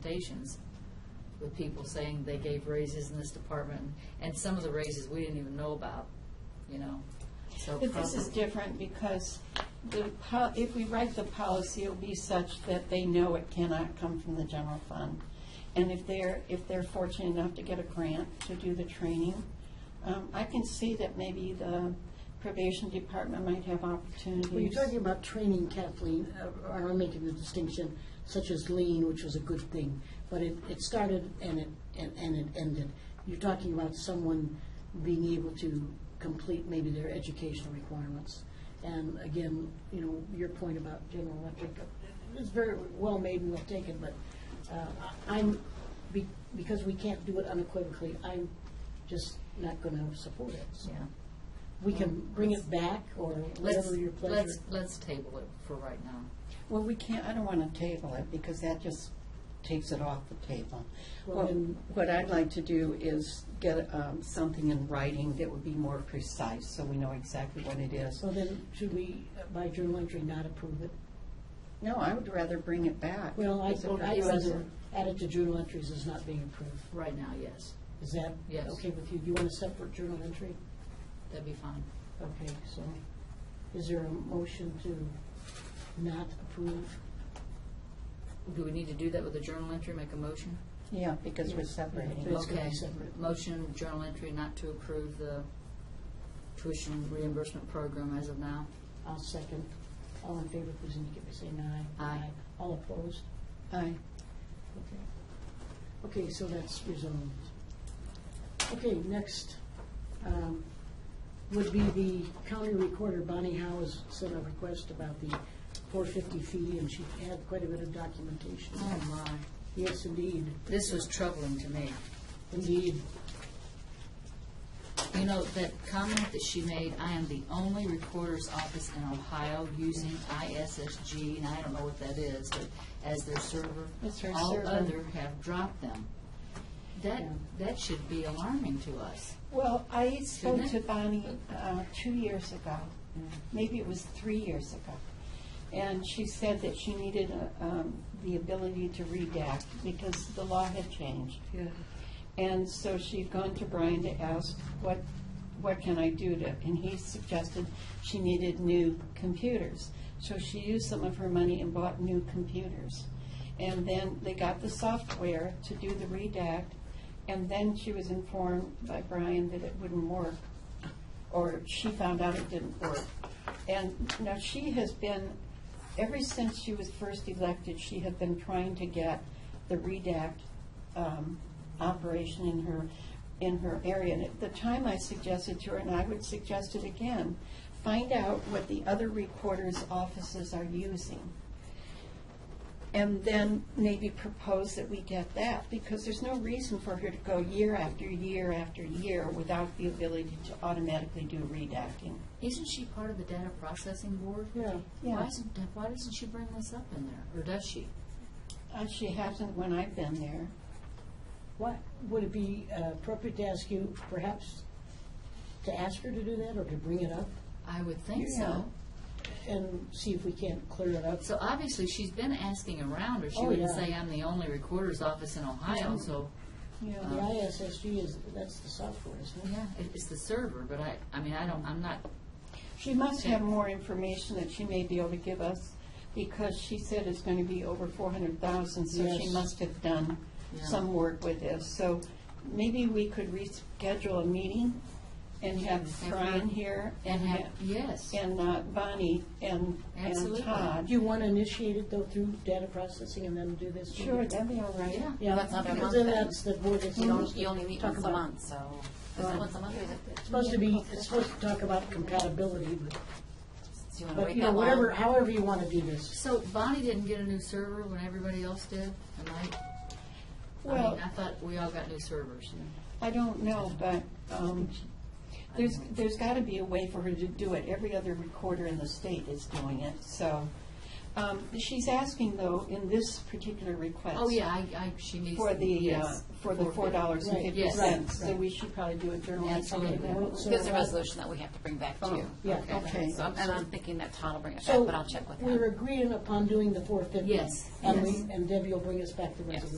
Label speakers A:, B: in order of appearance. A: presentations with people saying they gave raises in this department, and some of the raises we didn't even know about, you know, so.
B: But this is
A: probably-
B: different because the, po- if we write the policy, it'll be such that they know it cannot come from the general fund. And if they're, if they're fortunate enough to get a grant to do the training, um, I can see that maybe the probation department might have opportunities.
C: Well, you're talking about training, Kathleen, uh, or I'm making the distinction, such as lean, which was a good thing, but it, it started and it, and, and it ended. You're talking about someone being able to complete maybe their educational requirements. And again, you know, your point about General Electric is very well made and well taken, but uh, I'm, be- because we can't do it unequivocally, I'm just not going to support it. So
A: Yeah.
C: We can bring it back or
A: Let's,
C: whatever your pleasure.
A: let's, let's table it for right now.
B: Well, we can't, I don't want to table it because that just takes it off the table.
C: Well,
B: What-
C: then-
B: What I'd like to do is get um, something in writing that would be more precise so we know exactly what it is.
C: So then, should we, uh, by journal entry, not approve it?
B: No, I would rather bring it back.
C: Well, I,
B: Is it
C: I
B: rather-
C: rather add it to journal entries as not being approved.
A: Right now, yes,
C: Is that
A: Yes.
C: okay with you? Do you want a separate journal entry?
A: that'd be fine.
C: Okay, so is there a motion to not approve?
A: Do we need to do that with a journal entry, make a motion?
B: Yeah, because we're
C: Yeah,
B: separating.
C: it's gonna be
A: Okay.
C: separate.
A: Motion, journal entry not to approve the tuition reimbursement program as of now.
C: I'll second. All in favor, please indicate by saying aye.
A: Aye.
C: All opposed?
B: Aye.
C: Okay. Okay, so that's resolved. Okay, next um, would be the county recorder. Bonnie Howe has sent a request about the 450 fee, and she had quite a bit of documentation.
A: Oh, my.
C: Yes, indeed,
A: This was troubling to me.
C: indeed.
A: You know, that comment that she made, I am the only recorder's office in Ohio using ISSG, and I don't know what that is, but as their server.
B: It's their server.
A: All other have dropped them. That,
C: Yeah.
A: that should be alarming to us.
B: Well, I spoke
A: Shouldn't
B: to
A: it?
B: Bonnie uh, two years ago, maybe it was three years ago. And she said that she needed uh, um, the ability to redact because the law had changed.
A: Yeah.
B: And so she'd gone to Brian to ask, what, what can I do to, and he suggested she needed new computers. So she used some of her money and bought new computers. And then they got the software to do the redact, and then she was informed by Brian that it wouldn't work, or she found out it didn't work. And now she has been, ever since she was first elected, she had been trying to get the redact um, operation in her, in her area. And at the time, I suggested to her, and I would suggest it again, find out what the other recorder's offices are using. And then maybe propose that we get that, because there's no reason for her to go year after year after year without the ability to automatically do redacting.
A: Isn't she part of the data processing board?
C: Yeah.
A: Why
B: Yeah.
A: isn't, why doesn't she bring this up in there, or does she?
B: Uh, She hasn't when I've been there.
C: What, would it be uh, appropriate to ask you, perhaps, to ask her to do that or to bring it up
A: I would think
B: Yeah.
A: so.
C: and see if we can't clear it up?
A: So obviously, she's been asking around, or she
C: Oh,
A: wouldn't
C: yeah.
A: say, I'm the only recorder's office in Ohio, so,
C: The
B: Uh-huh.
C: ISSG is, that's the software, isn't it?
A: yeah, it- it's the server, but I, I mean, I don't, I'm not,
B: She must have more information that she may be able to give us, because she said it's going to be over four hundred thousand, so she
C: Yes.
B: must have done
A: Yeah.
B: some work with this. So maybe we could reschedule a meeting and have
A: Have her-
B: Brian here
A: and
B: and
A: have,
B: ha
A: yes.
B: and uh, Bonnie and, and
A: Absolutely.
C: Do
B: Todd.
C: you want to initiate it though through data processing and then do this?
B: Sure, that'd be all right.
A: Yeah.
C: Yeah,
D: That's not
C: because
D: the
C: then
D: month
C: that's the board is
D: You only, you only meet
C: Talk
D: once a
C: about-
D: month, so, is
C: Right.
D: it once a month or is it?
C: supposed to be, it's supposed to talk about compatibility, but,
D: Do you want to
C: but
D: wait
C: you know,
D: that
C: whatever,
D: long?
C: however you want to do this.
A: So Bonnie didn't get a new server when everybody else did, am I, I
B: Well,
A: mean, I thought we all got new servers.
B: I don't know, but um, there's, there's got to be a way for her to do it. Every other recorder in the state is doing it, so. Um, She's asking, though, in this particular request.
A: Oh, yeah, I, I, she needs.
B: For the, uh,
A: yes,
B: for the four dollars and fifty
A: Yes.
B: cents, so
C: Right.
B: we should probably do a journal entry
A: Absolutely.
B: of that.
C: So
D: There's a
C: I-
D: resolution that we have to bring back to you.
C: Oh, Yeah,
B: okay.
D: So, I'm- and I'm thinking that Todd will bring it back,
C: So
D: but I'll check with him.
C: we're agreeing upon doing the four fifty.
A: Yes,
C: And
A: yes.
C: we, and Debbie will bring us back the
D: Yes.
C: resolution.